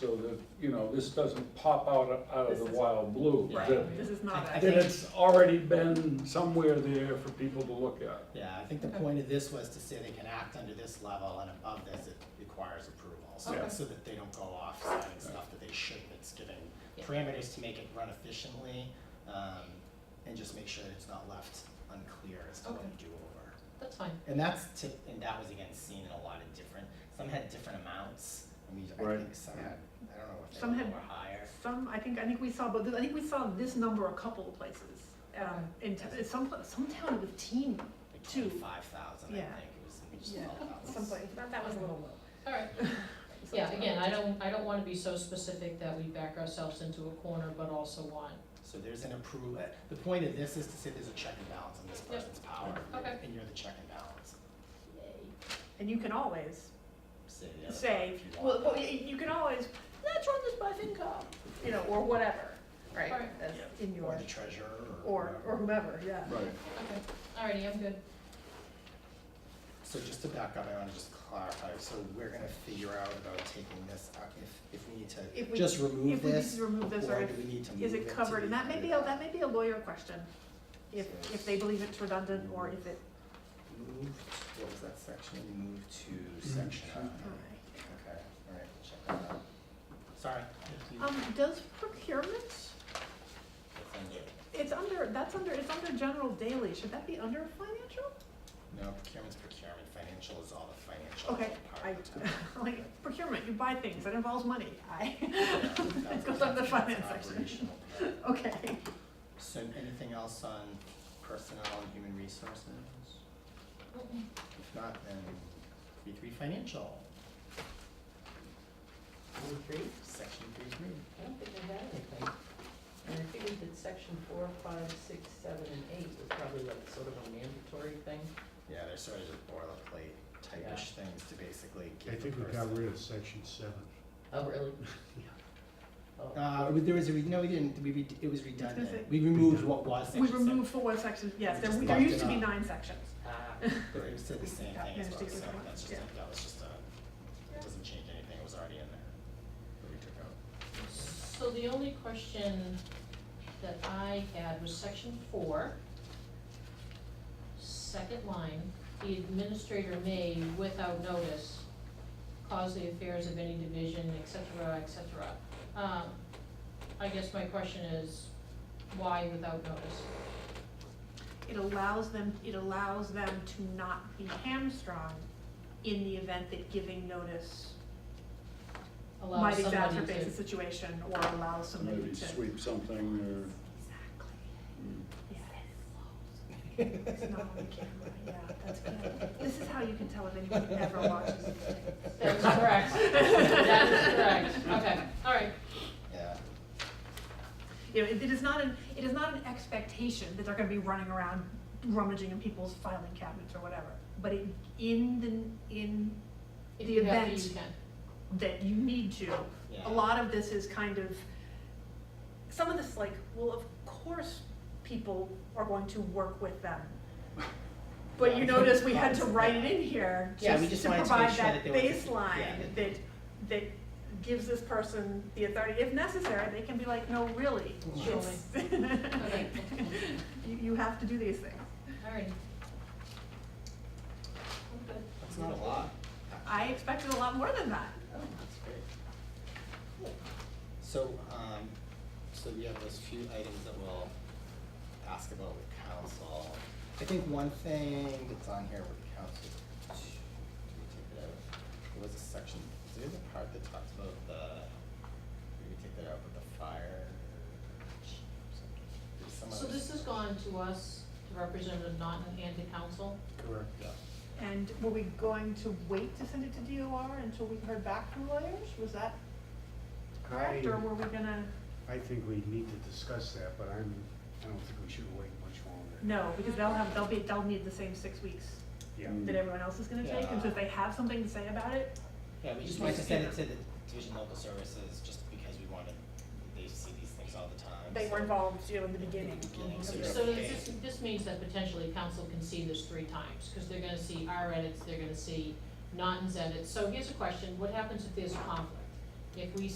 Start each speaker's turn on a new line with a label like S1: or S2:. S1: so that, you know, this doesn't pop out, out of
S2: This
S1: the
S2: is-
S1: wild blue. that-
S2: Right, this is not
S3: I
S2: that.
S1: That
S3: think-
S1: it's already been somewhere there for people to look at.
S3: Yeah, I think the
S2: Okay.
S3: point of this was to say they can act under this level and above this, it requires approval. So,
S2: Okay.
S3: so that they don't go off signing stuff that they shouldn't, it's giving
S4: Yeah.
S3: parameters to make it run efficiently, um, and just make sure it's not left unclear as to what
S2: Okay.
S3: you do over.
S4: That's fine.
S3: And that's to, and that was again seen in a lot of different, some had different amounts, I mean, I
S1: Right.
S3: think some had, I don't know if they
S2: Some
S3: were
S2: had-
S3: lower or higher.
S2: Some, I think, I think we saw, but I think we saw this number a couple of places. Um, in, t- some, pla- some town with teen,
S3: Like
S2: two.
S3: twenty-five thousand, I
S2: Yeah.
S3: think, it was, we just
S2: Yeah.
S3: felt that was.
S2: someplace, that, that was a little low.
S4: All right. Yeah, again, I don't, I don't wanna be so specific that we back ourselves into a corner, but also want,
S3: So there's an approval, eh, the point of this is to say there's a check and balance on this
S4: Yep.
S3: person's power,
S4: Okay.
S3: and you're the check and balance.
S2: And you can always
S3: Say the other
S2: say,
S3: if you
S2: well,
S3: want.
S2: well, you you can always, let's run this by FinCom, you know, or whatever, right?
S4: Right.
S2: That's
S3: Yep.
S2: in
S3: Or
S2: your,
S3: the treasurer, or.
S2: oh, or, or whomever, yeah.
S1: Right.
S4: okay, alrighty, I'm good.
S3: So just to back up, I wanna just clarify, so we're gonna figure out about taking this, out if, if we need
S2: If
S3: to
S2: we-
S3: just remove
S2: If we
S3: this,
S2: just remove this, or
S3: or
S2: if,
S3: do we need to move it
S2: is it
S3: to
S2: covered, and
S3: the
S2: that may be,
S3: other-
S2: a- that may be a lawyer question, if,
S3: So-
S2: if they believe it's redundant, or if it,
S3: Move, what was that section, move to section I, okay, alright, we'll check that out. Sorry. if you-
S2: Um, does procurement, it's
S3: it's under-
S2: under, that's under, it's under general daily, should that be under financial?
S3: No, procurement's procurement, financial is all the financial
S2: Okay,
S3: part
S2: I,
S3: of the town.
S2: like, procurement, you buy things, that involves money, I,
S3: Yeah,
S2: it
S3: that's-
S2: goes under
S3: that's
S2: finance section,
S3: operational part.
S2: okay.
S3: So anything else on personnel and human resources? If not, then three three financial. Three three, section three three.
S5: I don't think I had anything. And I figured that section four, five, six, seven, and eight was probably like sort of a mandatory thing.
S3: Yeah, they're sort of just boilerplate type-ish things to basically
S6: I
S3: give the
S6: think
S3: person.
S6: we got rid of section seven.
S5: Oh, really? Oh.
S3: Uh, we- there was a, re- no, we didn't, we, re- it was
S2: it-
S3: redundant, we removed what was section
S2: We
S3: seven.
S2: remove four sections, yes,
S3: We
S2: there,
S3: just
S2: there
S3: left
S2: used
S3: it
S2: to be
S3: out.
S2: nine sections,
S5: Ah,
S3: But it said the same
S2: Yeah,
S3: thing as well,
S2: interesting.
S3: so that's just,
S2: Yeah.
S3: a- that was just a, it doesn't change anything, it was already in there, that we took out.
S4: So the only question that I had was section four, second line, the administrator may, without notice, cause the affairs of any division, et cetera, et cetera. Um, I guess my question is, why without notice?
S2: it allows them, it allows them to not be hamstrung in the event that giving notice
S4: Allow
S2: might
S4: somebody
S2: exacerbate
S4: to-
S2: the situation or allow somebody to.
S1: Maybe sweep something
S2: Exactly,
S1: or,
S2: yes. It's not on the camera, yeah, that's good. This is how you can tell if anyone ever watches.
S4: That is correct, that is correct, okay, all right,
S3: Yeah,
S2: You know, it it is not an, it is not an expectation that they're gonna be running around rummaging in people's filing cabinets or whatever. But it, in the, in
S4: if
S2: The
S4: you have to,
S2: event.
S4: you can.
S2: that you need to.
S3: Yeah.
S2: A lot of this is kind of, some of this is like, well, of course, people are going to work with them. But you
S3: Yeah.
S2: notice we had to write it in here,
S3: Yeah, we
S2: just
S3: just
S2: to
S3: wanted to
S2: provide
S3: make sure
S2: that
S3: that there was a- yeah,
S2: baseline
S3: that-
S2: that, that gives this person the authority, if necessary, they can be like, no, really,
S4: Sure.
S2: it's-
S4: Okay.
S2: You, you have to do these things.
S4: Alrighty. Okay.
S3: that's not a lot,
S2: I expected a lot more than that.
S3: that's great. So, um, so we have those few items that we'll ask about with council. I think one thing that's on here with council, did we take it out? There was a section, is there a part that talks about the, did we take that out with the fire? chief or something? There's some
S4: So
S3: other-
S4: this has gone to us, to Representative Naughton and to council?
S6: Correct.
S3: Yeah.
S2: And were we going to wait to send it to DOR until we heard back from lawyers? Was that correct, or
S6: I-
S2: were we gonna?
S6: I think we need to discuss that, but I'm, I don't think we should wait much longer.
S2: No, because they'll have, they'll be, they'll need the same six weeks
S6: Yeah,
S2: that everyone else is gonna take, and so if they have something to say about it,
S3: Yeah, we just wanted to send it to the Division Local Services, just because we wanted, they see these things all the time.
S2: they were
S3: so-
S2: involved, you know, in the beginning.
S3: Beginning, so
S2: Okay.
S3: you're
S4: So
S3: okay.
S4: this, this means that potentially council can see this three times, because they're gonna see our edits, they're gonna see Naughton's edits. So here's a question, what happens if there's a conflict? If we